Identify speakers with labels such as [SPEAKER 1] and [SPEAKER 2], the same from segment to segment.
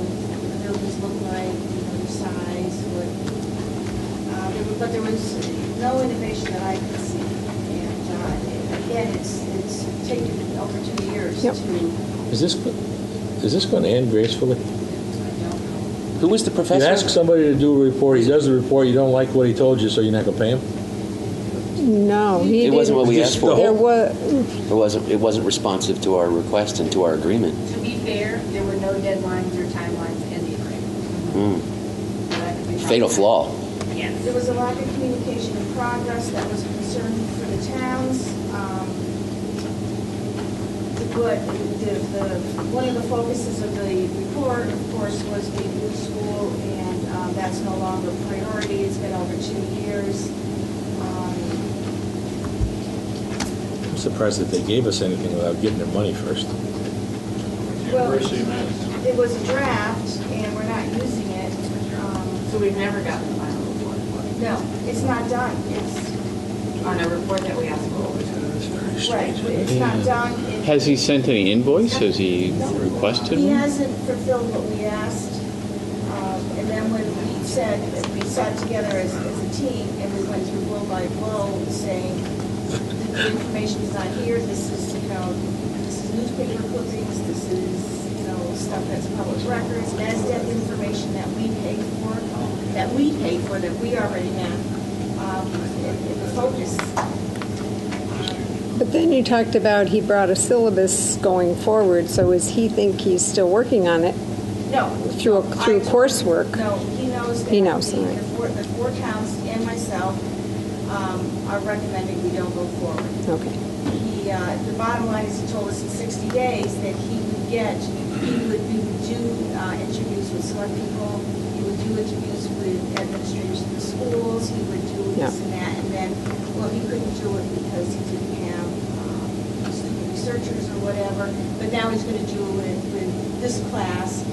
[SPEAKER 1] but uh, there was no innovation that I could see. And uh, again, it's, it's taken over two years to, I
[SPEAKER 2] Yep.
[SPEAKER 1] don't
[SPEAKER 3] Is this, is this going to end gracefully?
[SPEAKER 1] know.
[SPEAKER 4] Who is the
[SPEAKER 3] You ask
[SPEAKER 4] professor?
[SPEAKER 3] somebody to do a report, he does the report, you don't like what he told you, so you're not going to pay him?
[SPEAKER 2] No, he
[SPEAKER 4] It
[SPEAKER 2] didn't.
[SPEAKER 4] wasn't what we asked for.
[SPEAKER 2] There
[SPEAKER 4] It
[SPEAKER 2] was,
[SPEAKER 4] wasn't, it wasn't responsive to our request and to our agreement.
[SPEAKER 5] To be fair, there were no deadlines or timelines in the agreement.
[SPEAKER 4] Mm.
[SPEAKER 5] So that could be
[SPEAKER 4] Fatal
[SPEAKER 5] problematic.
[SPEAKER 4] flaw.
[SPEAKER 5] Yes.
[SPEAKER 1] There was a lack of communication in progress that was a concern for the towns. Um, The good, the, the, one of the focuses of the report, of course, was the new school, and um, that's no longer a priority. It's been over two years. Um,
[SPEAKER 3] I'm surprised that they gave us anything without getting their money first.
[SPEAKER 1] Well, It was a draft, and we're not using it. Um,
[SPEAKER 5] So we've never gotten the final report for
[SPEAKER 1] No, it's not done. It's,
[SPEAKER 5] it. on a report that we asked for.
[SPEAKER 1] right, it's not done. It-
[SPEAKER 6] Has he sent any invoice? Has he requested
[SPEAKER 1] He
[SPEAKER 6] one?
[SPEAKER 1] hasn't fulfilled what we asked, um, and then when we said, we sat together as, as a team, and we went through blow by blow, saying, the information's not here, this is, you know, this is newspaper clippings, this is, you know, stuff that's public records, NASDAQ information that we pay for, that we pay for, that we already have, um, in, in the focus. Um,
[SPEAKER 2] but then you talked about he brought a syllabus going forward, so is he think he's still working on it?
[SPEAKER 1] No.
[SPEAKER 2] Through a- through
[SPEAKER 1] I-
[SPEAKER 2] coursework.
[SPEAKER 1] No, he knows that.
[SPEAKER 2] He knows,
[SPEAKER 1] the-
[SPEAKER 2] all right.
[SPEAKER 1] The four, the four towns and myself um, are recommending we don't go forward.
[SPEAKER 2] Okay.
[SPEAKER 1] He, uh, the bottom line is he told us in 60 days that he would get, he would he would do uh, interviews with select people, he would do interviews with administrators in the schools, he would do
[SPEAKER 2] Yeah.
[SPEAKER 1] this and that, and then, well, he couldn't do it because he didn't have um, student researchers or whatever, but now he's going to do it with this class,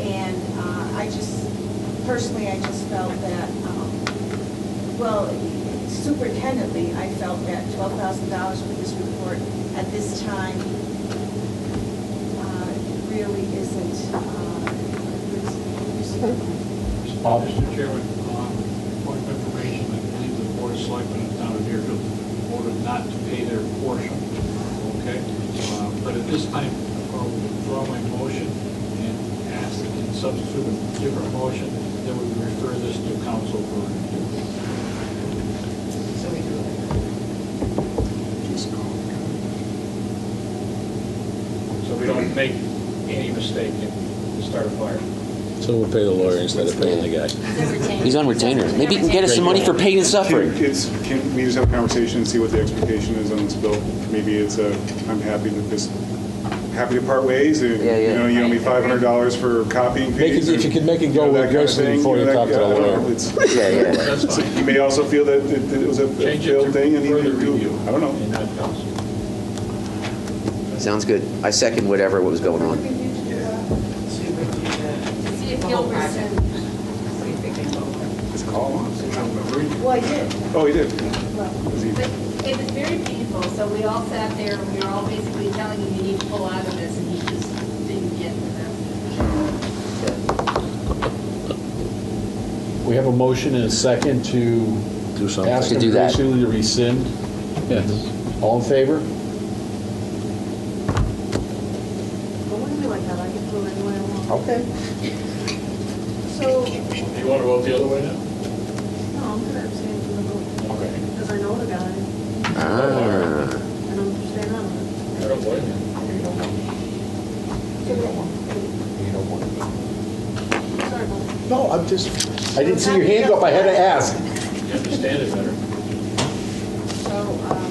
[SPEAKER 1] and uh, I just, personally, I just felt that um, well, superintendently, I felt that twelve thousand dollars for this report at this time uh, really isn't. uh,
[SPEAKER 7] Mr. Chairman, um, point of information, I believe the board of selectmen of the town of Deerfield voted not to pay their portion, okay? Uh, But at this time, I'll withdraw my motion and ask and substitute a different motion that we refer this to council for review.
[SPEAKER 5] So we do it.
[SPEAKER 7] So we don't make any mistake and start a fire.
[SPEAKER 3] So we'll pay the lawyer instead of paying the guy.
[SPEAKER 4] He's on retainer. Maybe you can get us some money for pain and
[SPEAKER 8] Can,
[SPEAKER 4] suffering.
[SPEAKER 8] it's, can we just have a conversation and see what the expectation is on this bill? Maybe it's a, I'm happy to just, happy to part ways, and,
[SPEAKER 4] Yeah, yeah.
[SPEAKER 8] you know, you owe me five hundred dollars for copying
[SPEAKER 3] Make it-
[SPEAKER 8] fees.
[SPEAKER 3] if you could make it go
[SPEAKER 8] with
[SPEAKER 3] aggressively before you talk to the lawyer.
[SPEAKER 4] Yeah, yeah.
[SPEAKER 7] That's fine.
[SPEAKER 8] You may also feel that it it was a
[SPEAKER 7] Change it to
[SPEAKER 8] failed thing, and you
[SPEAKER 7] further
[SPEAKER 8] need to,
[SPEAKER 7] review.
[SPEAKER 8] I don't know.
[SPEAKER 7] And not council.
[SPEAKER 4] Sounds good. I second whatever was going on.
[SPEAKER 5] See if he'll rescind. See if it can go.
[SPEAKER 8] Just call him.
[SPEAKER 1] Well, I did,
[SPEAKER 8] Oh, he did.
[SPEAKER 1] well,
[SPEAKER 8] Was he-
[SPEAKER 5] But it was very painful, so we all sat there, and we were all basically telling him, you need to pull out of this, and he just didn't get the message.
[SPEAKER 9] We have a motion and a second to
[SPEAKER 3] Do something.
[SPEAKER 9] ask
[SPEAKER 4] To
[SPEAKER 9] him
[SPEAKER 4] do that.
[SPEAKER 9] graciously to rescind.
[SPEAKER 6] Yes.
[SPEAKER 9] All in favor? Okay.
[SPEAKER 1] so,
[SPEAKER 7] Do you want to vote the other way now?
[SPEAKER 10] No, I'm gonna abstain from the vote,
[SPEAKER 7] Okay.
[SPEAKER 10] because I know the guy,
[SPEAKER 4] Ah.
[SPEAKER 10] and I'm staying out of it.
[SPEAKER 7] I don't blame you.
[SPEAKER 9] No, I'm just, I didn't see your hand up, I had to ask.
[SPEAKER 7] You understand it better.
[SPEAKER 1] so, um,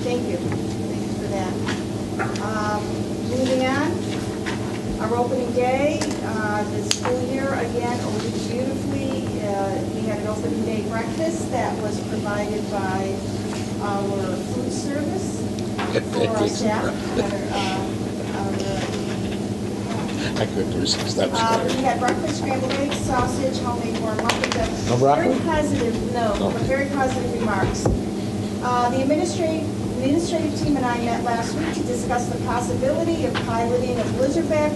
[SPEAKER 1] thank you, thank you for that. Um, Moving on, our opening day, uh, the school year again opened beautifully. Uh, We had an opening day breakfast that was provided by our food service for our staff. Our, uh, our
[SPEAKER 3] I couldn't resist, that was
[SPEAKER 1] uh, We
[SPEAKER 3] better.
[SPEAKER 1] had breakfast, scrambled eggs, sausage, homemade warm muffins. and
[SPEAKER 3] No broccoli?
[SPEAKER 1] Very positive, no,
[SPEAKER 3] No.
[SPEAKER 1] but very positive remarks. Uh, The administrative, administrative team and I met last week to discuss the possibility of piloting a blizzard bag